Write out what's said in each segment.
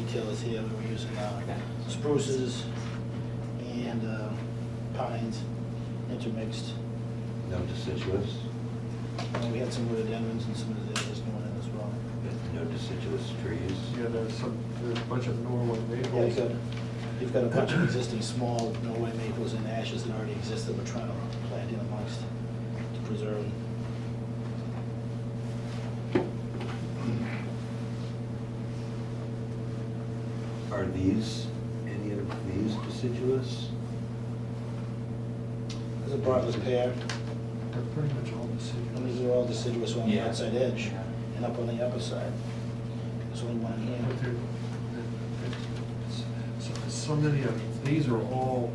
retailers here that we're using now, spruces and uh, pines intermixed. No deciduous? And we had some rhododendrons and some azaleas going in as well. No deciduous trees? Yeah, there's some, there's a bunch of Norway Yeah, you've maples. got, you've got a bunch of existing small Norway maples and ashes that already exist that we're trying to plant in amongst to preserve. Are these, any of these deciduous? There's a bartless pear, They're pretty much all the and these same. are all deciduous on the Yeah. outside edge and up on the upper side. There's only one here. But they're- they're- it's- So so many of, uh, these are all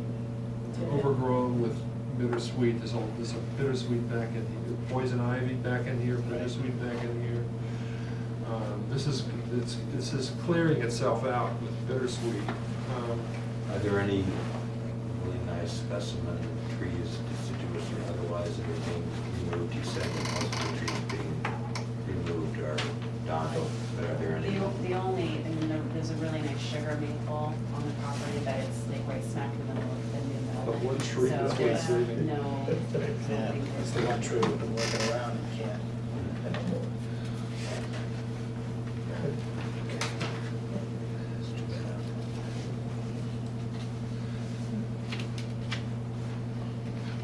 overgrown with bittersweet, there's all, there's a bittersweet back in here, poison ivy back in here, bittersweet back in here. Um, This is, it's, this is clearing itself out with bittersweet. Um, Are there any really nice specimen trees, deciduous or otherwise, that are being removed? You said that most of the trees being removed are dondal, but are there any? The o- the only, I mean, there- there's a really nice sugar maple on the property, but it's like right smack in the middle of the new mill. But one tree So is there's wasted. No. Yeah, that's the one tree we've been working around and can't. It's too bad.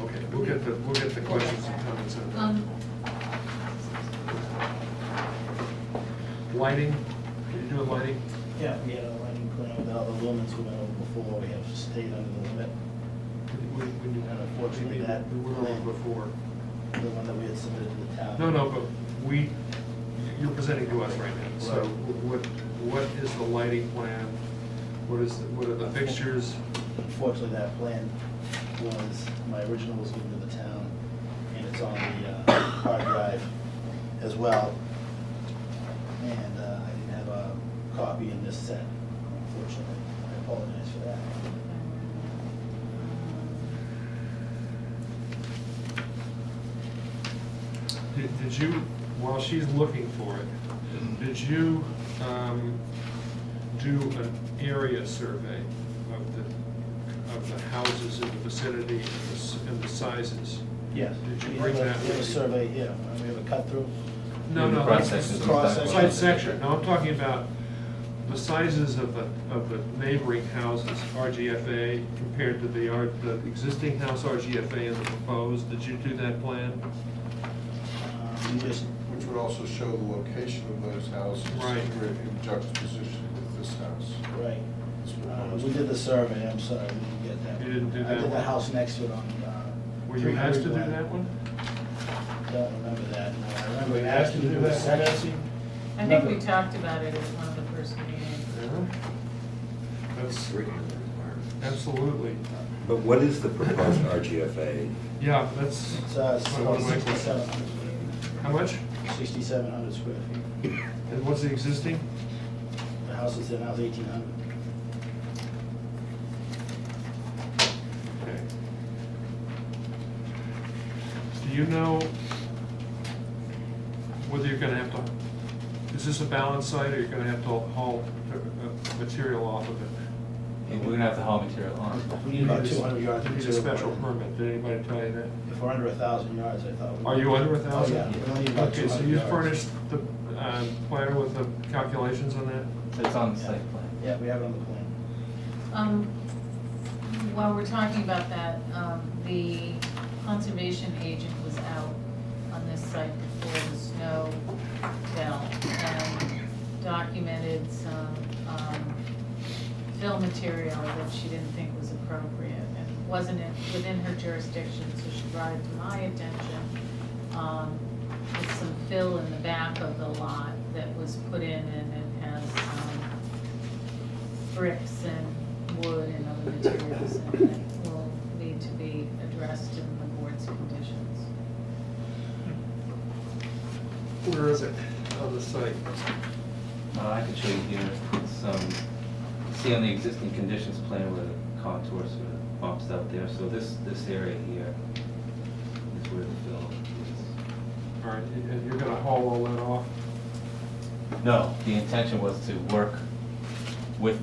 Okay, we'll get the, we'll get the questions and comments. in. Um, Lighting, can you do a lighting? Yeah, we had a lighting plan with all the lumens we went over before, we have stayed under the limit, We, we, we And unfortunately, we- that- We were on before. the one that we had submitted to the town. No, no, but we, you're presenting to us right now, so Right. what, what is the lighting plan? What is, the- what are the fixtures? Unfortunately, that plan was, my original was given to the town, and it's on the uh, hard drive as well. And uh, I didn't have a copy in this set, unfortunately. I apologize for that. Did did you, while she's looking for it, did you um, do an area survey of the, of the houses in the vicinity and the s- and the sizes? Yes. Did you We bring have a- that We have a with you? survey here, Uh, we have a cut through. No, no. Cross that's- sections. Cross Side section. side section, no, I'm talking about the sizes of the, of the neighboring houses, RGFA compared to the, R- the existing house RGFA and the proposed, did you do that plan? Um, We just Which would also show the location of those houses. Right. In juxtaposition with this house. Right. That's what I Uh, was- We did the survey, I'm sorry, we didn't get that. You didn't do I that did the one? house next to it on. uh, Were you asked to do 300 that one? Don't remember that, no, I remember we asked to do a section. I think we talked about it at one of the first meetings. That's, It's written in the requirements. absolutely, But what is the proposed RGFA? yeah, that's, It's uh, That's one of my questions. sixty-seven hundred, how much? sixty-seven hundred square feet. And what's the existing? The house is in, now is eighteen hundred. Okay. Do you know whether you're gonna have to, is this a balance site or you're gonna have to haul uh, material off of it? And we're gonna have to haul material on. We need about two hundred yards. You of need a material. special permit, did anybody tell you that? If we're under a thousand yards, I thought. we- Are you under a thousand? Oh, yeah, we only need about Okay, so 200 you yards. furnished the uh, planner with the calculations on that? It's on the Yeah. site plan. Yeah, we have it on the plan. Um, while we're talking about that, um, the conservation agent was out on this site before the snow fell and documented some, um, fill material that she didn't think was appropriate and wasn't in- within her jurisdiction, so she brought it to my attention. Um, There's some fill in the back of the lot that was put in and it has um, bricks and wood and other materials and that will need to be addressed in the board's conditions. Where is it on the site? Uh, I can show you here, it's, um, see on the existing conditions plan where the contour sort of bumps out there, so this, this area here is where the fill is. All right, and you're gonna haul all that off? No, the intention was to work with